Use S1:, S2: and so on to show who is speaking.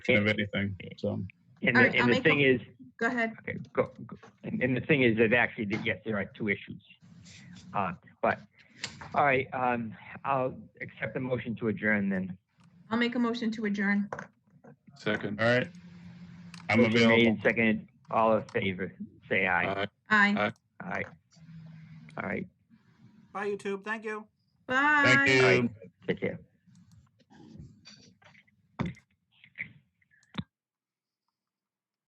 S1: of anything, so.
S2: And
S3: All
S2: the,
S3: right, I'll
S2: and the
S3: make a-
S2: thing is,
S3: Go ahead.
S2: okay, go, go- and and the thing is that actually, that yes, there are two issues. Uh, but, all right, um, I'll accept the motion to adjourn then.
S3: I'll make a motion to adjourn.
S4: Second.
S1: All right. I'm
S2: Motion made
S1: available.
S2: and Seconded, all in favor, say aye.
S4: Aye.
S3: Aye.
S4: Aye.
S2: Aye. All right,
S5: Bye, YouTube. Thank you.
S3: Bye.
S1: Thank you.
S2: take care.